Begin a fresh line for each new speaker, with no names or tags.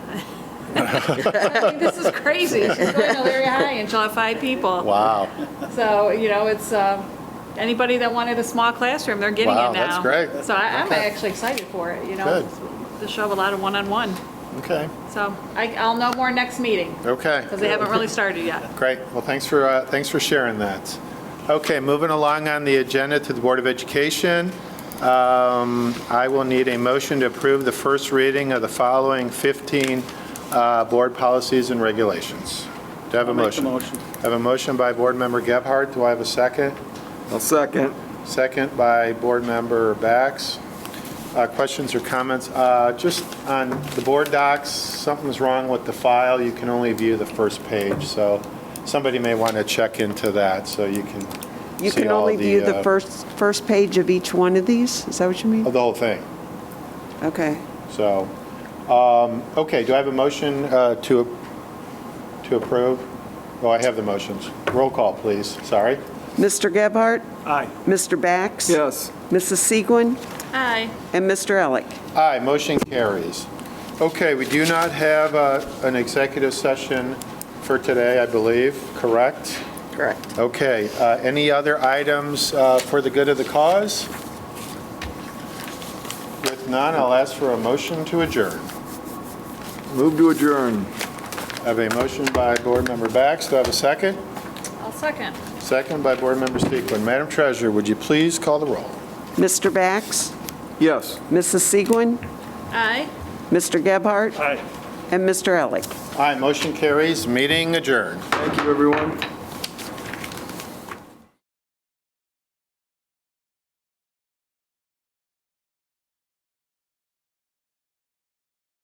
I mean, this is crazy. She's going to Larry High and she'll have five people.
Wow.
So, you know, it's, um, anybody that wanted a small classroom, they're getting it now.
Wow, that's great.
So I- I'm
Okay.
actually excited for it, you know?
Good.
To show a lot of one-on-one.
Okay,
So I, I'll know more next meeting,
okay.
because they haven't really started yet.
Great. Well, thanks for, uh, thanks for sharing that. Okay, moving along on the agenda to the Board of Education. Um, I will need a motion to approve the first reading of the following 15 uh, board policies and regulations. Do I have a
Make the
motion?
motion.
I have a motion by Board Member Gebhardt. Do I have a second?
I'll second.
Second by Board Member Bax. Uh, Questions or comments? Uh, Just on the board docs, something's wrong with the file. You can only view the first page, so somebody may want to check into that, so you can
You
see
can
all
only view the
uh,
first, first page of each one of these? Is that what you
of
mean?
The whole thing. Oh.
Okay.
So, um, okay, do I have a motion uh, to to approve? Oh, I have the motions. Roll call, please. Sorry.
Mr. Gebhardt?
Aye.
Mr. Bax?
Yes.
Mrs. Segwin?
Aye.
And Mr. Elick?
Aye, motion carries. Okay, we do not have uh, an executive session for today, I believe, correct?
Correct.
Okay, uh, any other items uh, for the good of the cause? With none, I'll ask for a motion to adjourn.
Move to adjourn.
I have a motion by Board Member Bax, do I have a second?
I'll second.
Second by Board Member Speakman. Madam Treasurer, would you please call the roll?
Mr. Bax?
Yes.
Mrs. Segwin?
Aye.
Mr. Gebhardt?
Aye.
And Mr. Elick?
Aye, motion carries, meeting adjourned.
Thank you, everyone.